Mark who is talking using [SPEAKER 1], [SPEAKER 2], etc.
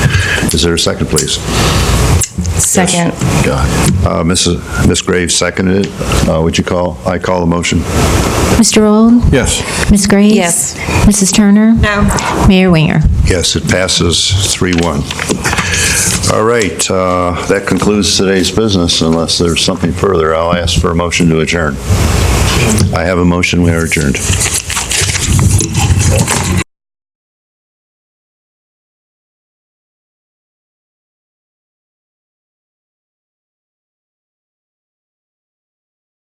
[SPEAKER 1] Is there a second, please?
[SPEAKER 2] Second.
[SPEAKER 1] God. Uh, Mrs. Ms. Graves seconded it. Uh, Would you call, I call the motion?
[SPEAKER 3] Mr. Old?
[SPEAKER 1] Yes.
[SPEAKER 3] Ms. Graves?
[SPEAKER 2] Yes.
[SPEAKER 3] Mrs. Turner? No. Mayor Winger?
[SPEAKER 1] Yes, it passes 3-1. All right, uh, that concludes today's business unless there's something further. I'll ask for a motion to adjourn. I have a motion, we are adjourned.